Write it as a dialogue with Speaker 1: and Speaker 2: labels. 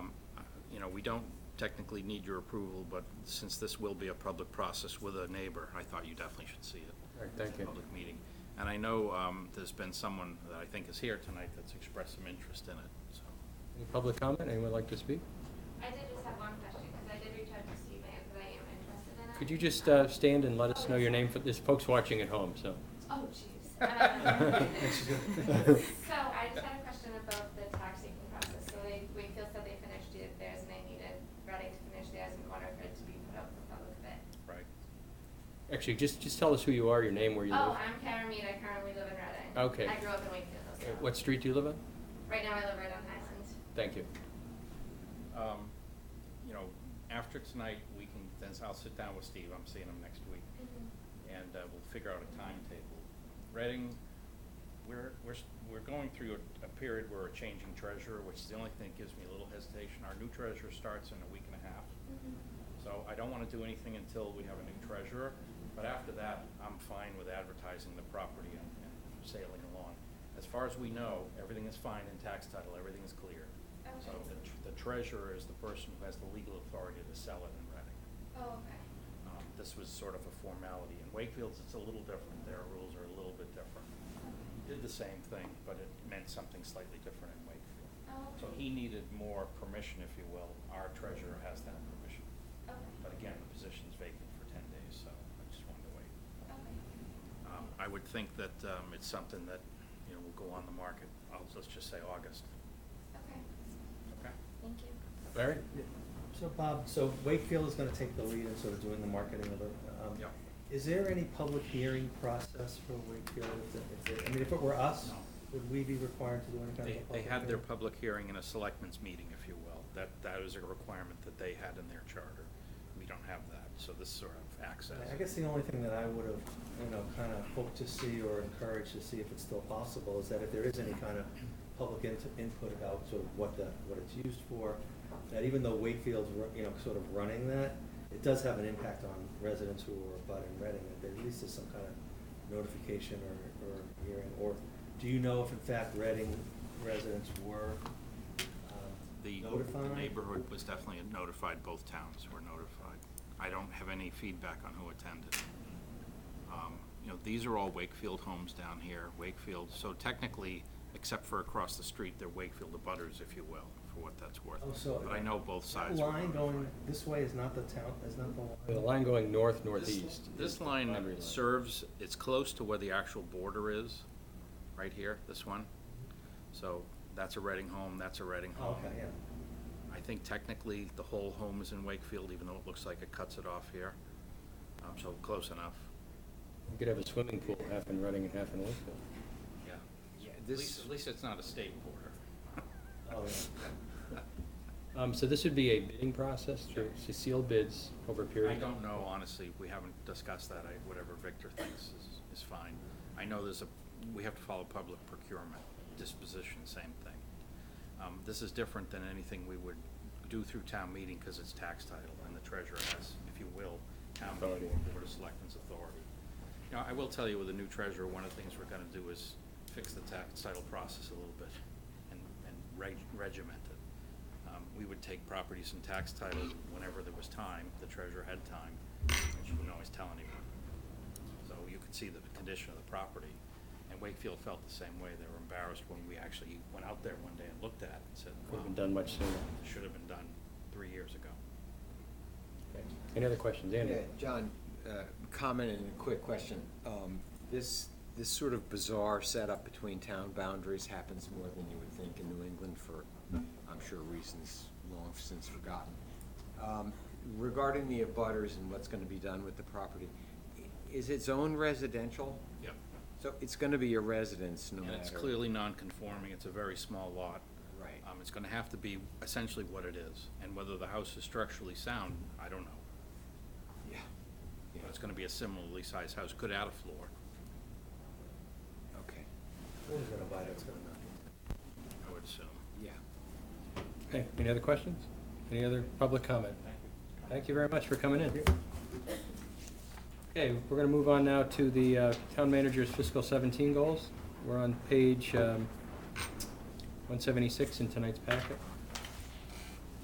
Speaker 1: we don't technically need your approval, but since this will be a public process with a neighbor, I thought you definitely should see it.
Speaker 2: All right, thank you.
Speaker 1: Public meeting. And I know um, there's been someone that I think is here tonight that's expressed some interest in it, so.
Speaker 2: Any public comment? Anyone like to speak?
Speaker 3: I did just have one question, because I did reach out to Steve Mann, because I am interested in it.
Speaker 2: Could you just uh, stand and let us know your name? for- There's folks watching at home, so.
Speaker 3: Oh, jeez. Um, So I just had a question about the tax seeking process. So they, Wakefield said they finished it- theirs, and they needed Reading to finish theirs in order for it to be put out for public bid.
Speaker 1: Right.
Speaker 2: Actually, just, just tell us who you are, your name, where you live.
Speaker 3: Oh, I'm Karen Mead, I currently live in Reading.
Speaker 2: Okay.
Speaker 3: I grew up in Wakefield,
Speaker 2: Uh,
Speaker 3: so.
Speaker 2: What street do you live on?
Speaker 3: Right now I live right on Highland.
Speaker 2: Thank you.
Speaker 1: Um, You know, after tonight, we can, then I'll sit down with Steve, I'm seeing him next week,
Speaker 3: Mm-hmm.
Speaker 1: and uh, we'll figure out a timetable. Reading, we're, we're, s- we're going through a- a period where we're changing treasurer, which is the only thing that gives me a little hesitation. Our new treasurer starts in a week and a half,
Speaker 3: Mm-hmm.
Speaker 1: so I don't want to do anything until we have a new treasurer. But after that, I'm fine with advertising the property and and sailing along. As far as we know, everything is fine in tax title, everything is clear. So
Speaker 3: Okay.
Speaker 1: the tr- the treasurer is the person who has the legal authority to sell it in Reading.
Speaker 3: Oh, okay.
Speaker 1: Um, This was sort of a formality. In Wakefield's, it's a little different. Their rules are a little bit different. He Did the same thing, but it meant something slightly different in Wakefield.
Speaker 3: Oh,
Speaker 1: So he needed more permission, if you will. Our treasurer has that permission.
Speaker 3: Okay,
Speaker 1: But again, the position's vacant for ten days, so I just wanted to wait.
Speaker 3: okay.
Speaker 1: Um, I would think that um, it's something that, you know, will go on the market, I'll- let's just say August.
Speaker 3: Okay,
Speaker 1: Okay.
Speaker 3: thank you.
Speaker 2: Larry?
Speaker 4: So Bob, so Wakefield is gonna take the lead in sort of doing the marketing of it. Um,
Speaker 1: Yeah.
Speaker 4: Is there any public hearing process for Wakefield? If it- if it- I mean, if it were us,
Speaker 1: No.
Speaker 4: would we be required to do any kind of a
Speaker 1: They,
Speaker 4: public
Speaker 1: they
Speaker 4: hearing?
Speaker 1: had their public hearing in a selectmen's meeting, if you will. That, that is a requirement that they had in their charter. We don't have that, so this sort of access.
Speaker 4: I guess the only thing that I would have, you know, kind of hoped to see or encouraged to see if it's still possible is that if there is any kind of public in- input about sort of what the, what it's used for, that even though Wakefield's, ru- you know, sort of running that, it does have an impact on residents who are abutting Reading, that there at least is some kind of notification or, or hearing, or do you know if in fact Reading residents were um,
Speaker 1: The
Speaker 4: notified?
Speaker 1: the neighborhood was definitely notified, both towns were notified. I don't have any feedback on who attended. Um, You know, these are all Wakefield homes down here, Wakefield, so technically, except for across the street, they're Wakefield abutters, if you will, for what that's worth.
Speaker 4: Oh, so
Speaker 1: But I know both
Speaker 4: That
Speaker 1: sides were
Speaker 4: line going
Speaker 1: notified.
Speaker 4: this way is not the town, is not the line?
Speaker 2: The line going north,
Speaker 1: This-
Speaker 2: northeast. is
Speaker 1: This
Speaker 2: the
Speaker 1: line
Speaker 2: boundary line.
Speaker 1: serves, it's close to where the actual border is, right here, this one. So that's a Reading home, that's a Reading
Speaker 4: Oh,
Speaker 1: home.
Speaker 4: Okay, yeah.
Speaker 1: I think technically the whole home is in Wakefield, even though it looks like it cuts it off here. Um, so close enough.
Speaker 2: You could have a swimming pool, half in Reading and half in Wakefield.
Speaker 1: Yeah.
Speaker 5: Yeah,
Speaker 1: At
Speaker 5: this-
Speaker 1: least, at least it's not a state border.
Speaker 4: Oh, yeah.
Speaker 2: Um, So this would be a bidding process, through
Speaker 1: Sure.
Speaker 2: sealed bids over a period?
Speaker 1: I don't know, honestly, we haven't discussed that, I, whatever Victor thinks is, is fine. I know there's a, we have to follow public procurement, disposition, same thing. Um, this is different than anything we would do through town meeting, cause it's tax title, and the treasurer has, if you will, town meeting
Speaker 2: Authority.
Speaker 1: or Board of Selectmen's authority. You know, I will tell you, with the new treasurer, one of the things we're gonna do is fix the tax title process a little bit and, and reg- regiment it. Um, we would take properties in tax title whenever there was time, the treasurer had time, and she wouldn't always tell anyone. So you could see the condition of the property, and Wakefield felt the same way, they were embarrassed when we actually went out there one day and looked at it and said,
Speaker 2: Could
Speaker 1: wow.
Speaker 2: have been done much sooner.
Speaker 1: This should have been done three years ago.
Speaker 2: Okay. Any other questions? Andy?
Speaker 5: Yeah, John, uh, comment and a quick question. Um, This, this sort of bizarre setup between town boundaries happens more than you would think in New England for, I'm sure, reasons long since forgotten. Um, Regarding the abutters and what's gonna be done with the property, i- is it zone residential?
Speaker 1: Yep.
Speaker 5: So it's gonna be a residence no
Speaker 1: And
Speaker 5: matter.
Speaker 1: it's clearly non-conforming, it's a very small lot.
Speaker 5: Right.
Speaker 1: Um, it's gonna have to be essentially what it is, and whether the house is structurally sound, I don't know.
Speaker 5: Yeah.
Speaker 1: But it's gonna be a similarly sized house, could add a floor.
Speaker 5: Okay,
Speaker 4: Who's gonna buy it, it's gonna not.
Speaker 1: I would assume.
Speaker 5: yeah.
Speaker 2: Okay, any other questions? Any other public comment? Thank you very much for coming in. Okay, we're gonna move on now to the uh, town manager's fiscal seventeen goals. We're on page um, one seventy-six in tonight's packet.